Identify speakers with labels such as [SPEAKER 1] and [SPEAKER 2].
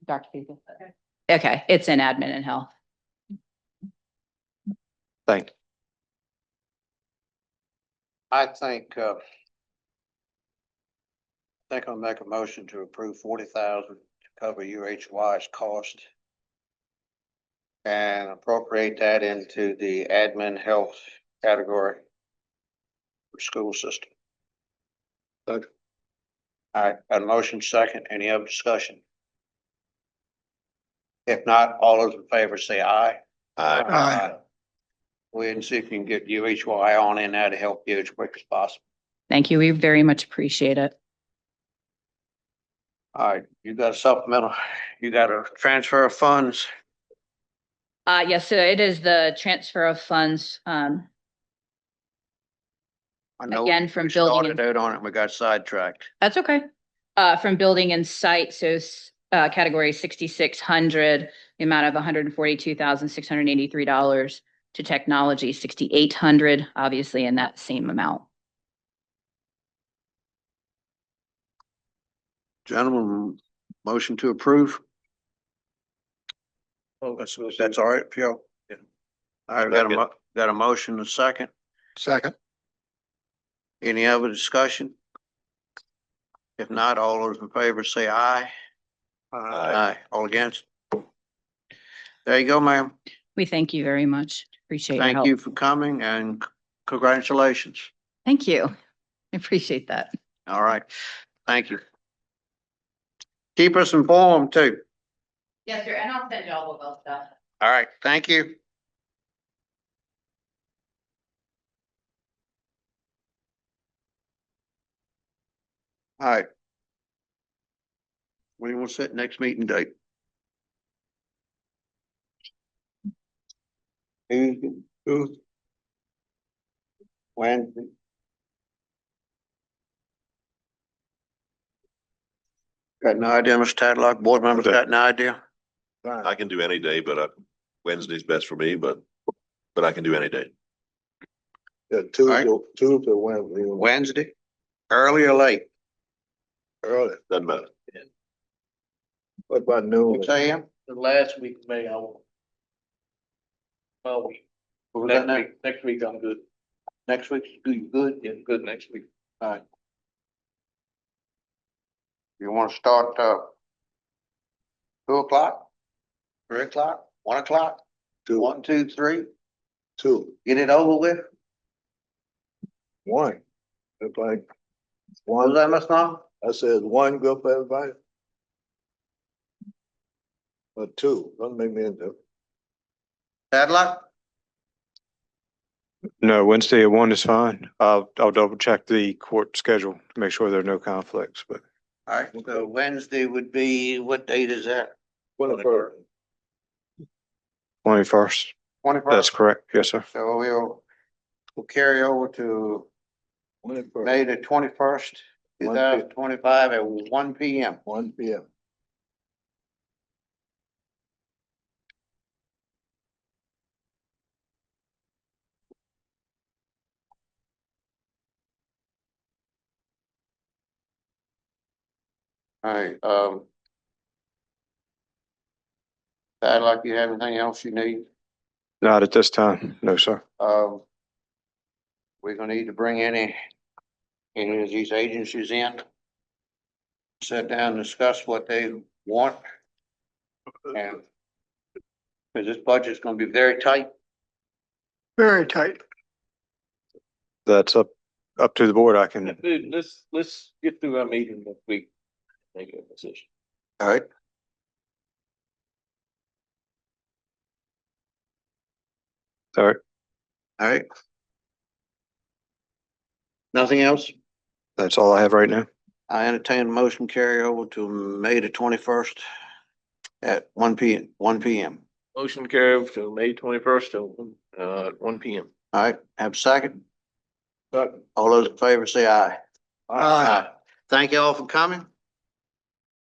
[SPEAKER 1] Dr. Peter.
[SPEAKER 2] Okay.
[SPEAKER 1] Okay, it's in admin and health.
[SPEAKER 3] Thank you.
[SPEAKER 4] I think, uh, I think I'll make a motion to approve forty thousand to cover UHY's cost and appropriate that into the admin health category for school system.
[SPEAKER 3] Second.
[SPEAKER 4] All right, got a motion second. Any other discussion? If not, all those in favor say aye.
[SPEAKER 3] Aye.
[SPEAKER 4] Aye. Go ahead and see if you can get UHY on in there to help you as quick as possible.
[SPEAKER 1] Thank you. We very much appreciate it.
[SPEAKER 4] All right, you got a supplemental, you got a transfer of funds.
[SPEAKER 1] Uh, yes, so it is the transfer of funds, um,
[SPEAKER 4] I know
[SPEAKER 1] again, from
[SPEAKER 4] we
[SPEAKER 1] building.
[SPEAKER 4] started
[SPEAKER 1] and-
[SPEAKER 4] out on it, we got sidetracked.
[SPEAKER 1] That's okay. Uh, from building and site, so, s- uh, category sixty-six hundred, the amount of hundred and forty-two thousand, six hundred and eighty-three dollars to technology, sixty-eight hundred, obviously in that same amount.
[SPEAKER 4] Gentlemen, motion to approve. Oh, That's, that's all right, Phil. All right, we got a, mo- got a motion and a second.
[SPEAKER 3] Second.
[SPEAKER 4] Any other discussion? If not, all those in favor say aye. Aye. All against? There you go, ma'am.
[SPEAKER 1] We thank you very much. Appreciate your
[SPEAKER 4] Thank
[SPEAKER 1] help.
[SPEAKER 4] you for coming and c- congratulations.
[SPEAKER 1] Thank you. I Appreciate that.
[SPEAKER 4] All right. Thank you. Keep us informed too.
[SPEAKER 1] Yes, sir, and I'll send you all the well stuff.
[SPEAKER 4] All right. Thank you. All right. We will set next meeting date. Who, who? When? Got no idea, Mr. Tadlock. Board members got no idea?
[SPEAKER 5] I can do any day, but uh, Wednesday's best for me, but, but I can do any day.
[SPEAKER 3] Yeah, two,
[SPEAKER 4] Aye.
[SPEAKER 3] to- two to Wednesday,
[SPEAKER 4] Wednesday, early or late?
[SPEAKER 3] early,
[SPEAKER 5] Doesn't matter.
[SPEAKER 3] what about noon?
[SPEAKER 4] Six AM?
[SPEAKER 6] The last week of May, I will. Well, we-
[SPEAKER 4] What was
[SPEAKER 6] next
[SPEAKER 4] that now?
[SPEAKER 6] week, next week I'm good.
[SPEAKER 4] Next week, do you good?
[SPEAKER 6] Yeah, good next week.
[SPEAKER 4] You wanna start, uh, two o'clock? Three o'clock? One o'clock?
[SPEAKER 3] Two,
[SPEAKER 4] One, two, three?
[SPEAKER 3] two,
[SPEAKER 4] Get it over with?
[SPEAKER 3] one. It's like,
[SPEAKER 4] What was
[SPEAKER 3] one,
[SPEAKER 4] that, Ms. Long?
[SPEAKER 3] I said, one good for everybody. Or two, don't make me into.
[SPEAKER 4] Tadlock?
[SPEAKER 7] No, Wednesday at one is fine. I'll, I'll double check the court schedule to make sure there are no conflicts, but
[SPEAKER 4] All right, so Wednesday would be, what date is that?
[SPEAKER 3] Twenty-first.
[SPEAKER 7] twenty-first, that's
[SPEAKER 4] Twenty-first.
[SPEAKER 7] correct. Yes, sir.
[SPEAKER 4] So we'll, we'll carry over to May
[SPEAKER 3] Twenty-first,
[SPEAKER 4] the twenty-first, two
[SPEAKER 3] One P-
[SPEAKER 4] thousand twenty-five at one P M.
[SPEAKER 3] one P M.
[SPEAKER 4] All right, um. Tadlock, you have anything else you need?
[SPEAKER 7] Not at this time. No, sir.
[SPEAKER 4] Um. We're gonna need to bring any, any of these agencies in. Sit down, discuss what they want. And. Cause this budget's gonna be very tight.
[SPEAKER 8] Very tight.
[SPEAKER 7] That's up, up to the board. I can,
[SPEAKER 6] Dude, let's, let's get through our meeting next week. Make a decision.
[SPEAKER 4] All right.
[SPEAKER 7] all right,
[SPEAKER 4] All right. Nothing else?
[SPEAKER 7] that's all I have right now.
[SPEAKER 4] I entertain a motion carry over to May the twenty-first at one P M, one P M.
[SPEAKER 6] Motion carry over to May twenty-first, uh, one P M.
[SPEAKER 4] All right, have a second? All those in favor say aye.
[SPEAKER 3] Aye.
[SPEAKER 4] Thank you all for coming.